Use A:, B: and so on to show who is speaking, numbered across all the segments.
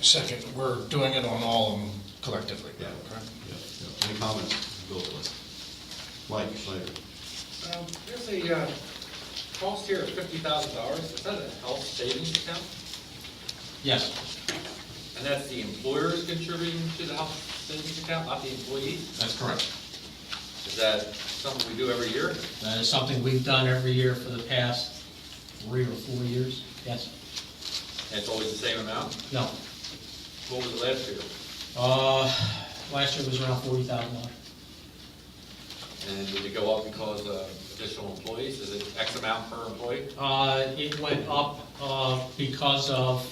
A: Second, we're doing it on all of them collectively.
B: Yeah.
A: Okay.
B: Yeah, yeah. Any comments, Bill, please? Mike, later.
C: Um, There's a uh, cost here of fifty thousand dollars, is that a health savings account?
D: Yes,
C: And that's the employer's contributing to the health savings account, not the employee?
D: that's correct.
C: Is that something we do every year?
D: That is something we've done every year for the past three or four years. Yes,
C: And it's always the same amount?
D: no.
C: What was it last year?
D: Uh, last year was around forty thousand dollars.
C: And did it go up because of additional employees? Is it X amount per employee?
D: Uh, it went up, uh, because of,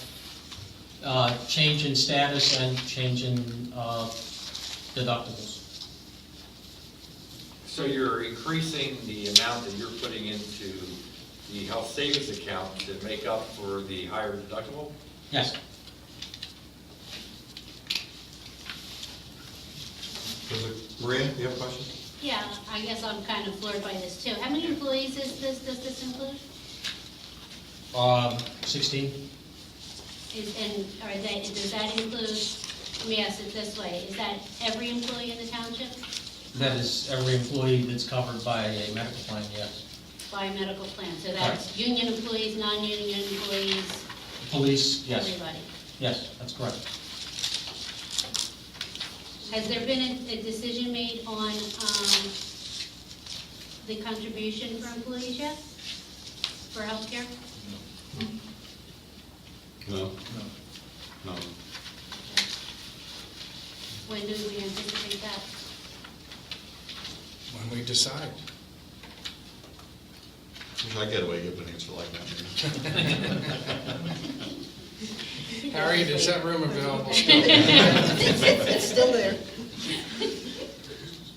D: uh, change in status and change in, uh, deductibles.
C: So you're increasing the amount that you're putting into the health savings account to make up for the higher deductible?
D: Yes,
B: Does it- Maria, you have a question?
E: Yeah, I guess I'm kind of floored by this too. How many employees is this, does this include?
D: um, sixteen?
E: Is, and are they, does that include, let me ask it this way, is that every employee in the township?
D: That is every employee that's covered by a medical plan, yes.
E: By medical plan, so that's union employees, non-union employees,
D: Police, yes,
E: everybody?
D: yes, that's correct.
E: Has there been a, a decision made on, um, the contribution for employees yet? For healthcare?
B: No. No.
E: When do we anticipate that?
A: When we decide.
B: Should I get away giving an answer like that?
A: Harry, is that room available still?
F: It's still there.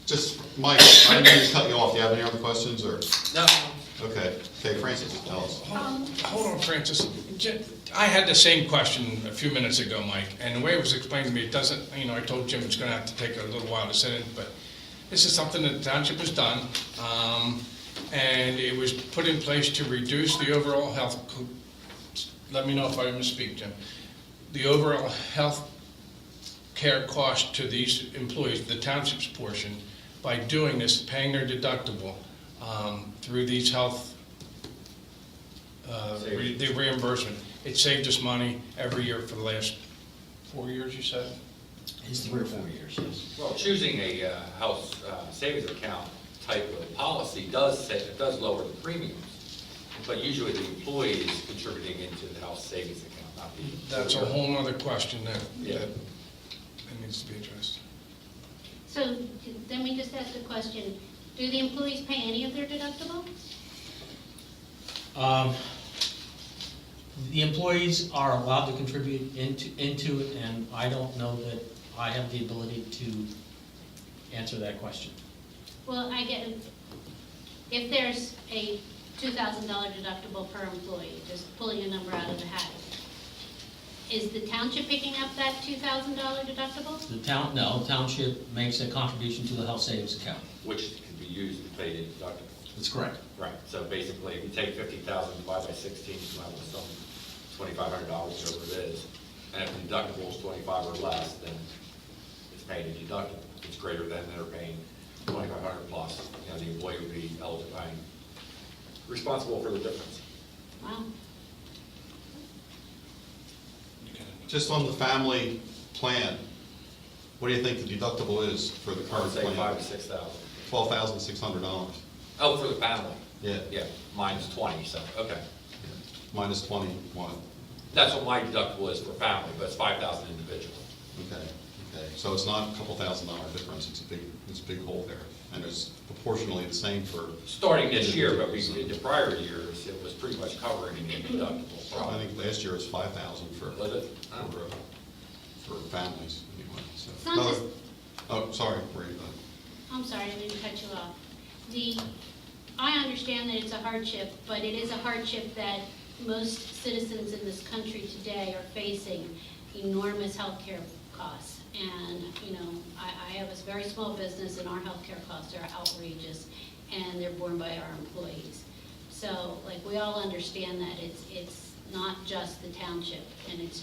B: Just, Mike, I didn't mean to cut you off. Do you have any other questions, or?
C: No.
B: Okay, okay, Francis, tell us.
A: Um, Hold on, Francis. J- I had the same question a few minutes ago, Mike, and the way it was explained to me, it doesn't, you know, I told Jim it's gonna have to take a little while to set in, but this is something that the township has done, um, and it was put in place to reduce the overall health, co- let me know if I misspeak, Jim, the overall health care cost to these employees, the township's portion, by doing this, paying their deductible, um, through these health uh, re- the reimbursement. It saved us money every year for the last four years, you said?
D: It's three or four years, yes.
C: Well, choosing a uh, house uh, savings account type of policy does say, it does lower the premiums, but usually the employee is contributing into the house savings account, not the.
A: That's a whole nother question that,
C: Yeah.
A: that that needs to be addressed.
E: So, let me just ask the question, do the employees pay any of their deductible?
D: Um, The employees are allowed to contribute into, into it, and I don't know that I have the ability to answer that question.
E: Well, I get, if there's a two thousand dollar deductible per employee, just pulling a number out of the hat, is the township picking up that two thousand dollar deductible?
D: The town, no, township makes a contribution to the health savings account.
C: Which can be used to pay the deductible.
D: That's correct.
C: Right, so basically, if you take fifty thousand, divide by sixteen, come out with some twenty-five hundred dollars, whatever it is, and if the deductible is twenty-five or less, then it's paid a deductible. If it's greater than, they're paying twenty-five hundred plus, you know, the employee would be eligible, paying- responsible for the difference.
E: Wow,
B: Just on the family plan, what do you think the deductible is for the
C: I
B: current
C: would say five to
B: plan?
C: six thousand.
B: Twelve thousand six hundred dollars.
C: Oh, for the family?
B: Yeah.
C: Yeah, mine's twenty, so, okay.
B: Minus twenty-one.
C: That's what my deductible is for family, but it's five thousand individual.
B: Okay, okay. So it's not a couple thousand dollar difference. It's a big, it's a big hole there. And it's proportionally the same for,
C: Starting this year, but we, in the prior years, it was pretty much covering the deductible
B: I
C: problem.
B: think last year was five thousand for.
C: Was it? I don't
B: for,
C: know.
B: uh, for families, anyway, so.
E: It's not just-
B: Oh, sorry, Maria, go ahead.
E: I'm sorry, I didn't cut you off. The, I understand that it's a hardship, but it is a hardship that most citizens in this country today are facing enormous healthcare costs. And, you know, I, I have a very small business and our healthcare costs are outrageous and they're borne by our employees. So, like, we all understand that it's, it's not just the township and it's